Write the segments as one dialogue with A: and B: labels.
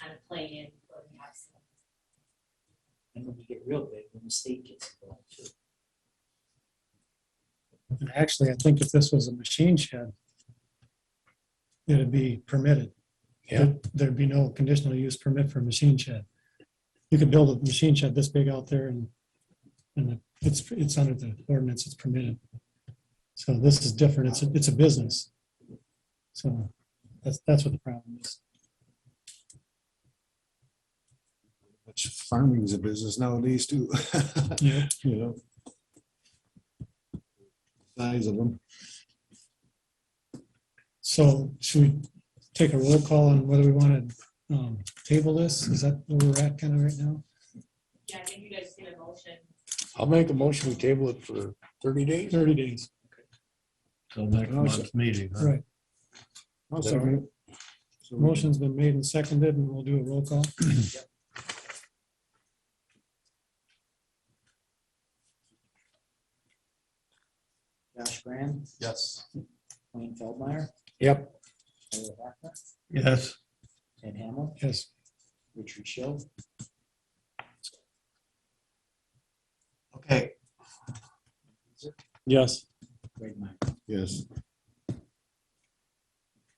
A: kind of play in where we have some.
B: And when you get real big, when the state gets involved too.
C: And actually, I think if this was a machine shed, it'd be permitted.
D: Yeah.
C: There- There'd be no conditional use permit for a machine shed. You could build a machine shed this big out there and, and it's, it's under the ordinance, it's permitted. So this is different. It's, a- it's a business. So that's, that's what the problem is.
D: Which farming is a business nowadays too.
C: Yeah.
D: You know. Size of them.
C: So should we take a roll call on whether we want to table this? Is that where we're at kind of right now?
A: Yeah, I think you guys did a motion.
E: I'll make a motion to table it for thirty days.
C: Thirty days.
F: Till next month's meeting.
D: Uh-huh.
F: huh?
C: Right.
D: I'll
E: Yeah.
D: second it. So-
C: Motion's been made and seconded, and we'll do a roll call.
B: Josh Graham,
E: Yes.
B: Wayne Feldmeyer,
E: Yep,
B: Tyler Buckner,
F: Yes,
B: Ted Hamel,
C: Yes.
B: Richard Schill.
E: okay.
C: Yes.
B: Greg Meyer.
D: Yes,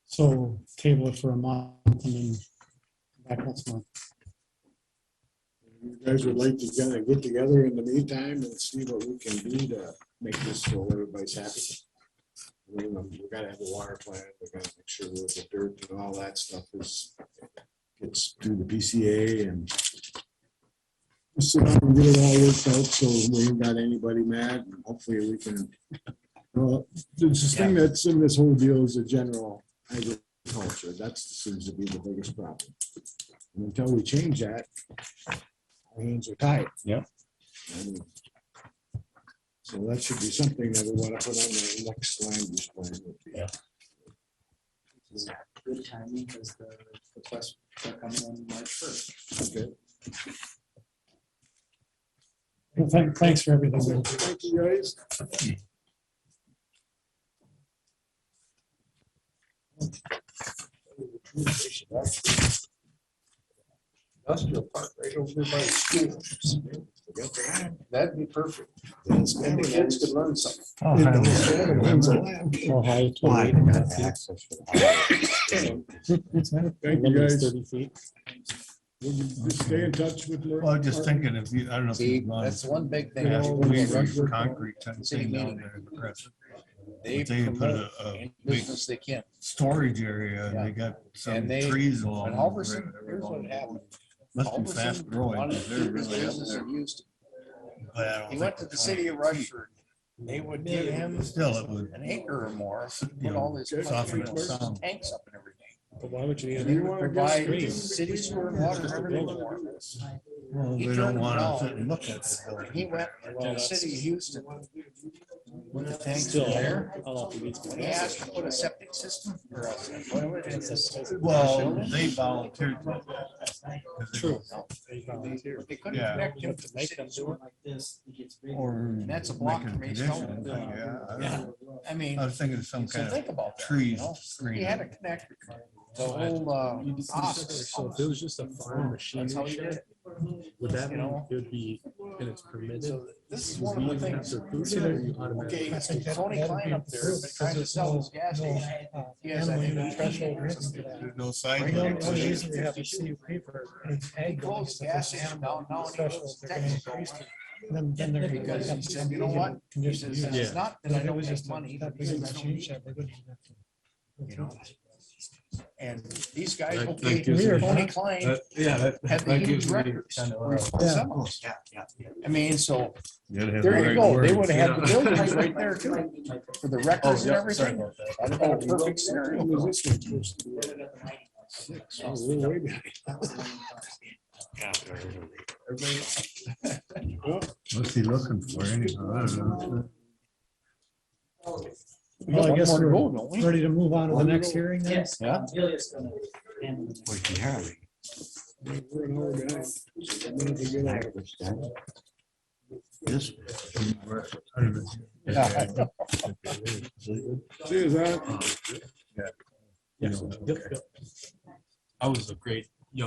C: So table it for a month and then back next month.
D: you guys would like to kind of get together in the meantime and see what we can do to make this so everybody's happy. I mean, um, We gotta have a water plan, we gotta make sure that the dirt and all that stuff is, gets through the PCA and just sit down and get it all worked out, so we ain't got anybody mad, and hopefully we can. Well, the the thing that's in this whole deal is the general agriculture, that seems to be the biggest problem. And Until we change that, our hands are tied.
E: Yeah.
D: And So that should be something that we want to put on the next language plan. would be-
E: Yeah.
B: This is Good timing because the requests are coming on March first.
D: Okay.
C: Well, thank- Thanks for everything.
D: Thank you, guys.
E: Industrial park right over by the school. That'd be perfect. And the kids could learn something.
C: Oh, Well, hi, it's
D: Why?
C: Wade.
D: Thank you, guys.
C: Limit's Thirty feet.
D: Will you just Stay in touch with. Mer-
F: well, I was just thinking if you, I don't know. if
G: See,
F: you'd mind-
G: that's one big
F: they
G: thing.
F: have
D: No,
F: to
G: people
F: put
D: we-
G: don't
F: a Concrete type thing down there in the press.
G: They
F: If They put
G: promote
F: a, a
G: any
F: big
G: business they can.
F: storage area and they got some
G: And they-
F: trees along.
G: But
F: the
G: Halverson,
F: river.
G: here's what happened.
F: Must be
G: Halverson
F: fast growing.
G: wanted
F: 'cause
G: to
F: They're
G: keep his
F: really up
G: business
F: there.
G: in Houston.
F: But I don't
G: He
F: think
G: went to
F: it's
G: the
F: on
G: city of
F: the
G: Rushford. They would give him
F: Still, it would.
G: an acre or more,
F: you
G: put
F: know,
G: all his
F: soften
G: concrete
F: the sound.
G: tanks up and everything.
C: But why would
D: If
C: you?
D: you wanna go
G: Provide
D: straight-
G: city sewer and water for everyone.
F: Well,
G: He
F: they
G: turned
F: don't
G: it
F: want
G: down.
F: to sit and look at it.
G: And He went to the city of Houston. With the tanks
C: Still,
G: there.
C: I don't think it's-
G: When he asked to put a septic system or a, whatever it is.
F: Well, they volunteered. to do that, 'cause they-
C: True.
G: They couldn't
F: Yeah.
G: connect him to the
B: Make them
G: city
B: do
G: sewer.
B: it like this, it gets bigger.
F: Or.
G: And that's a block
F: make it
G: from East
F: condition,
G: Elmwood.
F: yeah, I don't
G: Yeah.
F: know.
G: I mean,
F: I was thinking of some
G: so
F: kind
G: think
F: of
G: about that. you
F: trees
G: know? He
F: screen.
G: had to connect the whole, uh, office.
H: So if it was just a farm machine
G: That's how he did
H: shed,
G: it.
H: would that
G: You
H: mean
G: know?
H: it would be, and it's permitted?
G: So this is
H: Would
G: one of
H: you
G: the
H: have
G: things.
H: to approve it, or you
G: Okay,
H: automatically-
G: Tony Klein up there, has been trying to sell his gas station. He has, I think,
F: There's no
G: Right
F: sign.
G: now,
F: on
G: it's
F: it.
G: usually have a He closed the gas station down, now he lives in Texas.
C: Then, then they're.
G: Because he said, you know what? He says,
H: Yeah.
G: it's not that I don't make money.
C: That
G: he
C: big of
G: says,
C: a
G: I don't
C: machine
G: need it,
C: shed, they wouldn't even have to-
G: you know? And these guys,
H: That- that
G: okay,
H: gives me-
G: Tony Klein
H: That- Yeah, that-
G: had the
H: that
G: huge
H: gives me
G: records.
H: kind of-
G: for semis.
B: Yeah, yeah, yeah.
G: I mean, so
H: There
G: there you go. They would have had the buildings right there too, for the records and everything. That'd have been a perfect scenario.
D: When was this one supposed to be? Six, oh, we're way behind.
F: What's he looking for anyhow? I don't know.
G: got
C: Well, I
G: one
C: guess
G: more to
C: we're
G: go, don't we?
C: ready to move on to the next hearing then?
B: Yes.
G: Yeah.
B: Amelia's gonna handle it.
D: We're an hour behind. I'm gonna be good at it.
G: Yeah.
D: See, is that?
H: Yep, yep. I was a great